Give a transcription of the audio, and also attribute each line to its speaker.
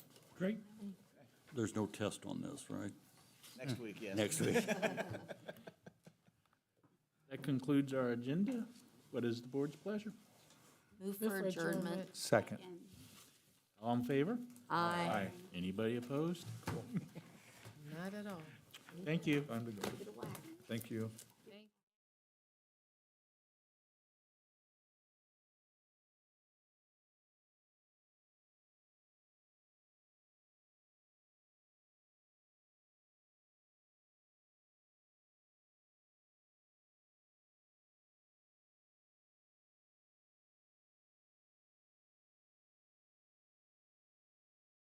Speaker 1: Great.
Speaker 2: There's no test on this, right?
Speaker 3: Next week, yes.
Speaker 2: Next week.
Speaker 1: That concludes our agenda. What is the board's pleasure?
Speaker 4: Move for adjournment.
Speaker 5: Second.
Speaker 1: All in favor?
Speaker 4: Aye.
Speaker 1: Anybody opposed?
Speaker 6: Not at all.
Speaker 1: Thank you.
Speaker 5: Time to go. Thank you.